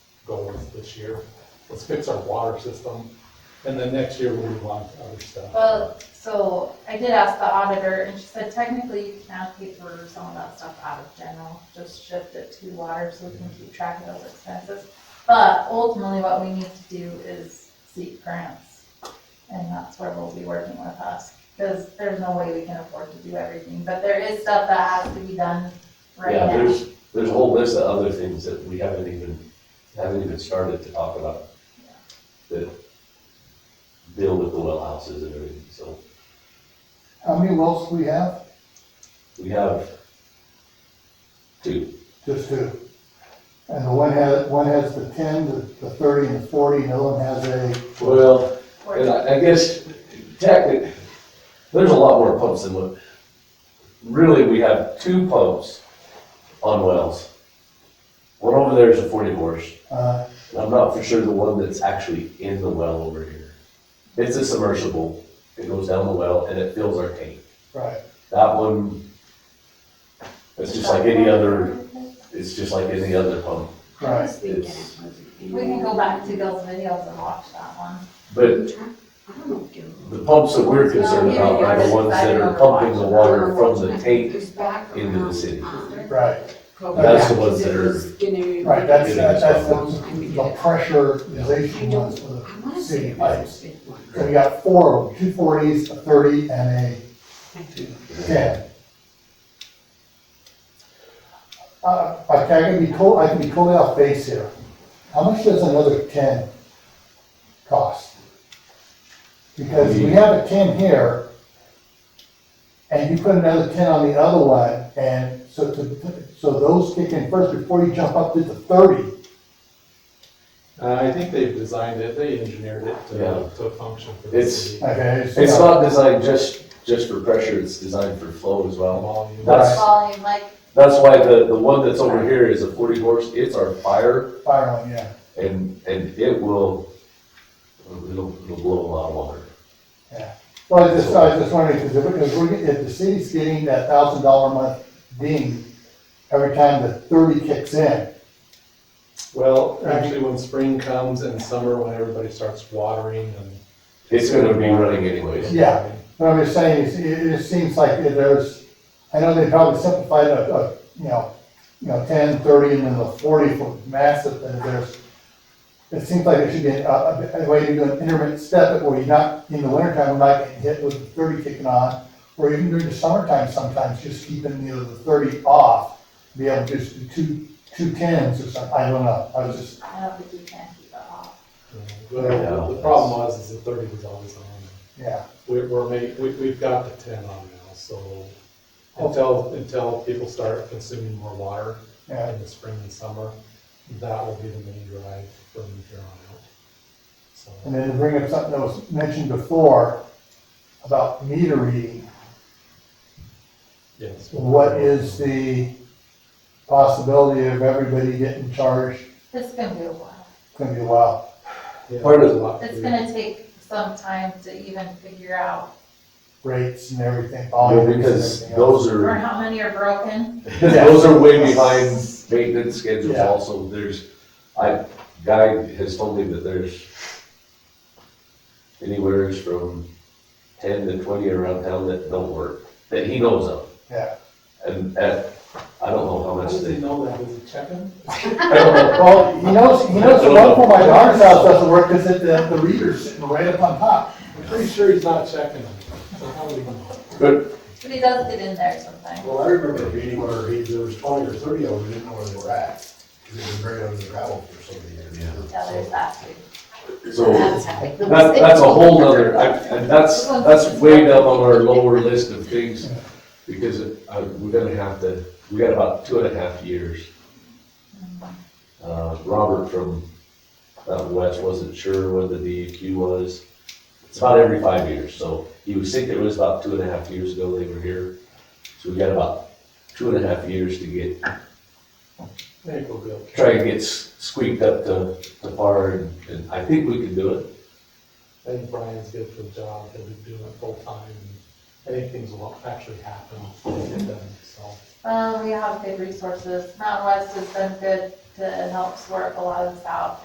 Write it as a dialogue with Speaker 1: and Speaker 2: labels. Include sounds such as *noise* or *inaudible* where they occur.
Speaker 1: problems this year. Let's fix our water system, and then next year we'll move on to other stuff.
Speaker 2: Well, so I did ask the auditor and she said technically you can allocate for some of that stuff out of general, just shift it to water so we can keep track of those expenses. But ultimately what we need to do is seek grants. And that's where we'll be working with us, because there's no way we can afford to do everything, but there is stuff that has to be done right
Speaker 3: Yeah,
Speaker 2: now.
Speaker 3: there's, there's a whole list of other things that we haven't even, haven't even started to talk about. That deal with the well houses and everything, so
Speaker 4: How many wells do we have?
Speaker 3: we have two,
Speaker 4: Just two. And the one has, one has the ten, the, the thirty, and the forty, and the other one has a,
Speaker 3: well,
Speaker 2: We're-
Speaker 3: and I, I guess technically, there's a lot more pumps than what, really, we have two pumps on wells. One over there is a forty horse,
Speaker 4: uh,
Speaker 3: and I'm not for sure the one that's actually in the well over here. It's a submersible, it goes down the well and it fills our tank.
Speaker 4: right.
Speaker 3: That one, it's just like any other, it's just like any other pump.
Speaker 4: Right.
Speaker 5: This weekend,
Speaker 3: It's-
Speaker 5: it wasn't any-
Speaker 2: We can go back to Gil's videos and watch that one.
Speaker 3: But
Speaker 5: I don't know, Gil.
Speaker 3: the pumps that we're concerned about are the ones that are pumping the water from the tank.
Speaker 5: It's back
Speaker 3: into the
Speaker 5: around,
Speaker 3: city.
Speaker 5: um,
Speaker 4: Right,
Speaker 5: Kobe
Speaker 4: That's
Speaker 3: the
Speaker 5: Bryant,
Speaker 3: ones that
Speaker 5: it
Speaker 3: are-
Speaker 5: was gonna-
Speaker 4: right, that's,
Speaker 3: Yeah.
Speaker 4: that's the, the pressurization ones for
Speaker 5: I
Speaker 4: the
Speaker 5: wanna say
Speaker 4: city
Speaker 5: it was
Speaker 4: pipes.
Speaker 5: a big one.
Speaker 4: So we got four of them, two forties, a thirty, and
Speaker 5: I think.
Speaker 4: a ten. Uh, okay, I can be told, I can be totally off base here. How much does another ten cost? Because
Speaker 3: Mm-hmm.
Speaker 4: we have a ten here, and you put another ten on the other one, and so, to- so those kick in first before you jump up to the thirty.
Speaker 1: Uh, I think they've designed it, they engineered it
Speaker 3: Yeah.
Speaker 1: to, to function for the
Speaker 3: It's-
Speaker 1: city.
Speaker 4: Okay, so-
Speaker 3: It's not designed just, just for pressure, it's designed for flow as well.
Speaker 1: Volume.
Speaker 3: That's-
Speaker 2: Volume, like,
Speaker 3: That's why the, the one that's over here is a forty horse, it's our fire
Speaker 4: Fire one, yeah,
Speaker 3: and, and it will, it'll, it'll blow a lot of water.
Speaker 4: yeah. Well, I just, I was just wondering, because if, if we're, get- if the city's getting that thousand dollar a month ding every time the thirty kicks in,
Speaker 1: Well, actually, when spring comes and summer, when everybody starts watering and.
Speaker 3: It's gonna be running anyways.
Speaker 4: Yeah. but I'm just saying, it's- it, it just seems like it- there's, I know they probably simplified a, a, you know, you know, ten, thirty, and then the forty for massive, and there's, it seems like there should be a, a, a way to do an intermittent step where you're not, in the wintertime, we're not getting hit with the thirty kicking on, or even during the summertime sometimes, just keeping, you know, the thirty off, be able to just do two, two tens or something, I don't know, I was just
Speaker 2: I don't think you can keep it off.
Speaker 1: Well, the problem was, is the thirty was always on.
Speaker 4: Yeah,
Speaker 1: We, we're ma, we, we've got the ten on now, so until, until people start consuming more water
Speaker 4: yeah,
Speaker 1: in the spring and summer, that will be the main drive from here on out. So,
Speaker 4: and then to bring up something that was mentioned before about meter reading,
Speaker 1: yes.
Speaker 4: what is the possibility of everybody getting charged?
Speaker 2: It's gonna be a while.
Speaker 4: It's gonna be a while.
Speaker 1: Yeah,
Speaker 3: Part of-
Speaker 1: there's a lot to
Speaker 2: It's
Speaker 1: do.
Speaker 2: gonna take some time to even figure out,
Speaker 4: rates and everything,
Speaker 3: Well,
Speaker 4: volumes and
Speaker 3: Oh, Because
Speaker 4: everything else.
Speaker 3: those are. *laughs*
Speaker 2: or how many are broken.
Speaker 3: Those are way behind maintenance schedules
Speaker 4: Yeah.
Speaker 3: also, there's, I, Guy has told me that there's anywheres from ten to twenty around town that don't work, that he knows of.
Speaker 4: Yeah.
Speaker 3: And, and I don't know how
Speaker 1: How
Speaker 3: much
Speaker 1: does he
Speaker 3: they, *laughs*
Speaker 1: know that? Does he check them?
Speaker 3: I don't know,
Speaker 4: Well, he knows, he knows the one for my daughter's house doesn't work because it, the, the reader's sitting right up on top.
Speaker 1: I'm pretty sure he's not checking them. So how would he know?
Speaker 3: but
Speaker 2: But he does get in there sometimes.
Speaker 6: Well, I remember a meeting where he, there was twenty or thirty of them, we didn't know where they were at, because they've been buried under the gravel for so many years.
Speaker 2: Yeah, there's that too.
Speaker 3: so,
Speaker 5: That's how it
Speaker 3: that, that's a whole nother, I, and that's, that's way down on our lower list of things. Because, uh, we're gonna have to, we got about two and a half years Uh, Robert from out west wasn't sure when the DEQ was. It's about every five years, so he was thinking it was about two and a half years ago they were here. So we got about two and a half years to get,
Speaker 1: Maybe we'll go.
Speaker 3: try and get s- squeaked up to, to par, and, and I think we can do it.
Speaker 1: I think Brian's good for the job, he'll be doing it full time, and I think things will actually happen, when we get done, so.
Speaker 2: Well, we have good resources. Mountain West has been good to help sort a lot of this out